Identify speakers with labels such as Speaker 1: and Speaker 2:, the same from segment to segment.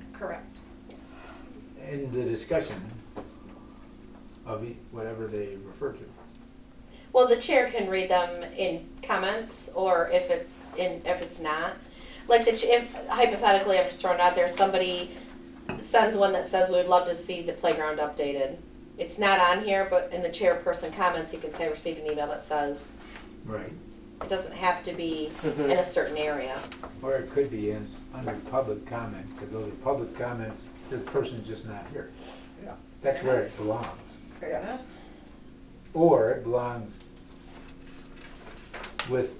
Speaker 1: Correct, yes.
Speaker 2: in the discussion of e- whatever they refer to.
Speaker 3: Well, the chair can read them in comments, or if it's in, if it's not. Like the, ch- if hypothetically, I'm just throwing it out there, somebody sends one that says, we would love to see the playground updated. It's not on here, but in the chairperson comments, he can say, received an email that says,
Speaker 2: Right.
Speaker 3: it doesn't have to be
Speaker 4: Mhm.
Speaker 3: in a certain area.
Speaker 2: Or it could be in, under public comments, because those are public comments, the person's just not here.
Speaker 4: Yeah.
Speaker 2: That's where it belongs.
Speaker 1: Fair
Speaker 4: Yes.
Speaker 1: enough.
Speaker 2: Or it belongs with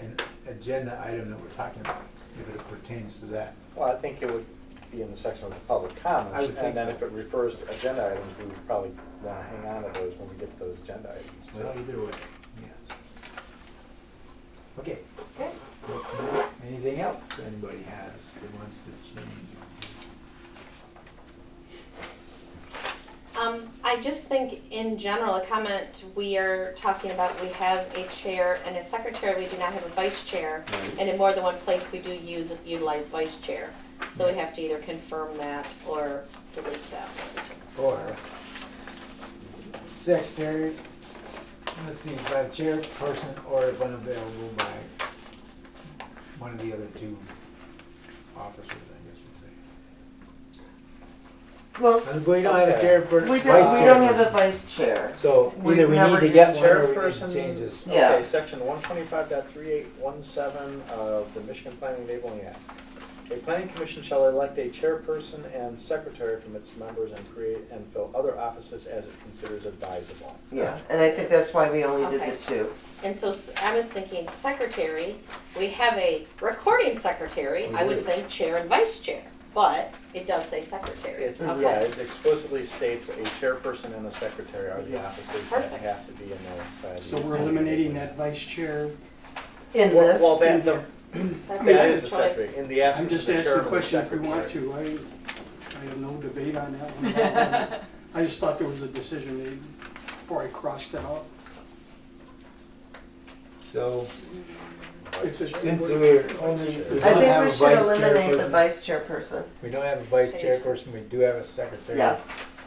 Speaker 2: an agenda item that we're talking about, if it pertains to that.
Speaker 4: Well, I think it would be in the section of the public
Speaker 2: I
Speaker 4: comments,
Speaker 2: would think
Speaker 4: and then
Speaker 2: so.
Speaker 4: if it refers to agenda items, we would probably want to hang on to those when we get to those agenda items.
Speaker 2: Well,
Speaker 4: too.
Speaker 2: either way, yes. Okay.
Speaker 3: Okay.
Speaker 2: What's next? Anything else anybody has that wants to change?
Speaker 3: Um, I just think in general, a comment, we are talking about, we have a chair and a secretary, we do not have a vice chair.
Speaker 2: Right.
Speaker 3: And in more than one place, we do use, utilize vice chair. So we have to either confirm that or delete that.
Speaker 2: Or secretary, let's see, by chairperson or if unavailable by one of the other two officers, I
Speaker 5: Well,
Speaker 2: guess we'll say. We don't have a chairperson.
Speaker 5: we don't, we don't have a vice chair.
Speaker 2: So
Speaker 5: We've
Speaker 2: either we need
Speaker 5: never
Speaker 2: to get
Speaker 5: had
Speaker 2: one or we need to
Speaker 4: chairperson.
Speaker 2: change this.
Speaker 5: Yeah.
Speaker 4: Okay, section one twenty-five of the Michigan Planning Enabling Act. A planning commission shall elect a chairperson and secretary from its members and create and fill other offices as it considers advisable.
Speaker 5: Yeah, and I think that's why we only did
Speaker 3: Okay.
Speaker 5: the two.
Speaker 3: And so s- I was thinking secretary, we have a recording secretary, I
Speaker 4: Mm-hmm.
Speaker 3: would think chair and vice chair, but it does say secretary.
Speaker 4: It,
Speaker 3: Okay.
Speaker 4: yeah, it explicitly states a chairperson and a secretary are the offices that
Speaker 3: Perfect.
Speaker 4: have to be in there. by the-
Speaker 6: So we're eliminating that vice chair.
Speaker 5: In
Speaker 4: Well, well, that,
Speaker 5: this,
Speaker 4: the,
Speaker 3: That's
Speaker 4: that
Speaker 3: another
Speaker 4: is the
Speaker 3: choice.
Speaker 4: secretary, in the
Speaker 6: I'm
Speaker 4: absence of
Speaker 6: just
Speaker 4: the
Speaker 6: asking a
Speaker 4: chairman and
Speaker 6: question if we want
Speaker 4: secretary.
Speaker 6: to. I, I have no debate on that one. I just thought there was a decision made before I crossed it out.
Speaker 2: So
Speaker 6: If it's-
Speaker 2: since we're only, we
Speaker 5: I
Speaker 2: don't
Speaker 5: think
Speaker 2: have
Speaker 5: we
Speaker 2: a
Speaker 5: should
Speaker 2: vice
Speaker 5: eliminate the
Speaker 2: chairperson.
Speaker 5: vice chairperson.
Speaker 2: We don't have a vice chairperson, we do have a secretary.
Speaker 5: Yes,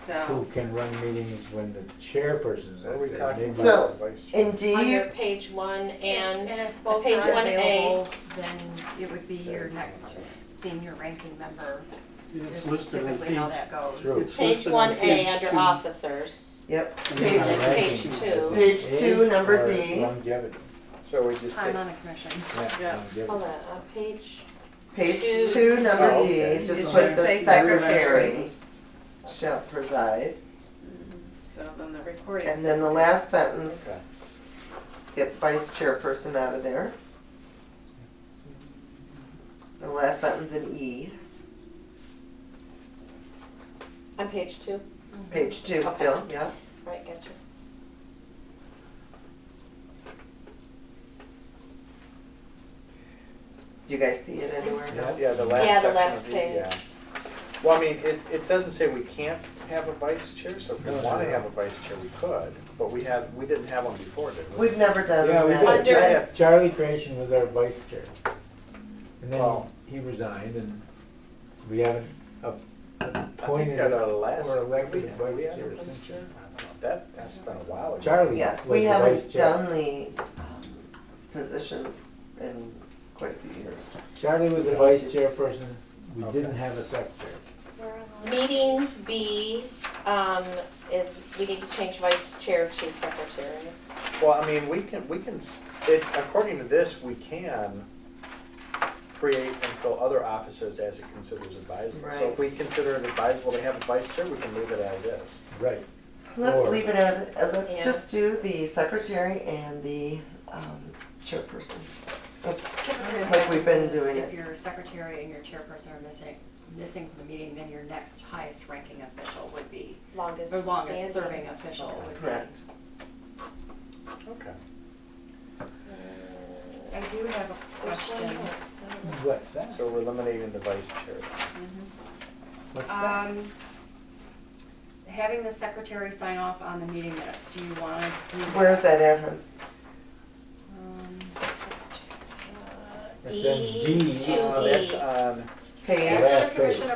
Speaker 2: Who
Speaker 1: So,
Speaker 2: can run meetings when the chairperson's
Speaker 4: What are
Speaker 2: out
Speaker 4: we
Speaker 2: there?
Speaker 4: talking
Speaker 2: Maybe-
Speaker 5: So,
Speaker 4: about? Vice chair.
Speaker 3: Under
Speaker 5: indeed,
Speaker 3: page one
Speaker 1: and
Speaker 3: and
Speaker 1: if
Speaker 3: well,
Speaker 1: both
Speaker 3: page
Speaker 1: are
Speaker 3: one A.
Speaker 1: available, then it would be your next senior ranking member.
Speaker 6: It's
Speaker 1: is
Speaker 6: listed on
Speaker 1: Typically how
Speaker 6: page.
Speaker 1: that goes.
Speaker 2: True.
Speaker 6: it's
Speaker 3: Page
Speaker 6: listed
Speaker 3: one
Speaker 6: on
Speaker 3: A
Speaker 6: page
Speaker 3: under
Speaker 6: two.
Speaker 3: officers.
Speaker 5: yep.
Speaker 6: And
Speaker 5: Page-
Speaker 6: it's not
Speaker 3: page
Speaker 6: ranking.
Speaker 3: two.
Speaker 5: Page
Speaker 2: Age
Speaker 5: two, number
Speaker 2: or
Speaker 5: D.
Speaker 2: Longevity.
Speaker 4: So we just
Speaker 1: Time
Speaker 4: take,
Speaker 1: on a commission.
Speaker 2: Yeah,
Speaker 3: Hold on,
Speaker 2: longevity.
Speaker 3: uh, page, Two.
Speaker 5: Page two, number
Speaker 4: Oh,
Speaker 5: D,
Speaker 4: okay.
Speaker 5: just
Speaker 6: It
Speaker 5: put
Speaker 6: should
Speaker 5: the
Speaker 6: say
Speaker 5: secretary shall preside.
Speaker 1: So then the recording.
Speaker 5: And then the last sentence,
Speaker 4: okay.
Speaker 5: get vice chairperson out of there. The last sentence in E,
Speaker 3: on page two,
Speaker 5: page two
Speaker 3: Okay.
Speaker 5: still, yeah.
Speaker 3: right, gotcha.
Speaker 5: Do you guys see it anywhere? else?
Speaker 4: yeah, the last
Speaker 3: Yeah, the
Speaker 4: section
Speaker 3: last
Speaker 4: of the-
Speaker 3: page.
Speaker 4: yeah. Well, I mean, it, it doesn't say we can't have a vice chair, so if we
Speaker 2: No, no,
Speaker 4: wanna
Speaker 2: no.
Speaker 4: have a vice chair, we could, but we have, we didn't have one before, did we?
Speaker 5: We've never done
Speaker 2: Yeah,
Speaker 5: that.
Speaker 2: we
Speaker 3: Under-
Speaker 2: did. Charlie Creation was our vice chair. And then
Speaker 4: Oh.
Speaker 2: he resigned and we haven't ap-
Speaker 4: I think
Speaker 2: appointed
Speaker 4: at our
Speaker 2: or
Speaker 4: last.
Speaker 2: elected a
Speaker 4: did we- did we
Speaker 2: vice
Speaker 4: have a
Speaker 2: chair
Speaker 4: vice
Speaker 2: since
Speaker 4: chair? I don't know. That, that's been a while ago.
Speaker 2: Charlie was
Speaker 5: Yes,
Speaker 2: the
Speaker 5: we
Speaker 2: vice
Speaker 5: haven't done
Speaker 2: chair.
Speaker 5: the um, positions in quite a few years.
Speaker 2: Charlie was the vice chairperson. We
Speaker 4: Okay.
Speaker 2: didn't have a secretary.
Speaker 3: Meetings B, um, is, we need to change vice chair to secretary.
Speaker 4: Well, I mean, we can, we can, s- it, according to this, we can create and fill other offices as it considers advisable. So if
Speaker 5: Right.
Speaker 4: we consider it advisable to have a vice chair, we can leave it as is.
Speaker 2: Right.
Speaker 5: Let's
Speaker 2: Or-
Speaker 5: leave it as, uh, let's
Speaker 3: Yeah.
Speaker 5: just do the secretary and the um, chairperson. Let's- Like we've been doing
Speaker 1: If
Speaker 5: it.
Speaker 1: your secretary and your chairperson are missing, missing from the meeting, then your next highest ranking official would be,
Speaker 3: Longest
Speaker 1: the longest
Speaker 3: standing.
Speaker 1: serving official would be.
Speaker 5: Correct.
Speaker 4: Okay.
Speaker 3: I do have a
Speaker 1: question.
Speaker 2: What's that?
Speaker 4: So we're eliminating the vice chair.
Speaker 3: Mm-hmm.
Speaker 2: What's that?
Speaker 1: Um, having the secretary sign off on the meeting minutes, do you want to do?
Speaker 5: Where's that at, hon?
Speaker 1: Um,
Speaker 2: It's in
Speaker 3: E
Speaker 2: D.
Speaker 3: to
Speaker 4: Uh, That's
Speaker 3: E.
Speaker 4: on
Speaker 5: Page?
Speaker 4: Uh,
Speaker 2: last
Speaker 6: uh,
Speaker 1: After commission
Speaker 2: page.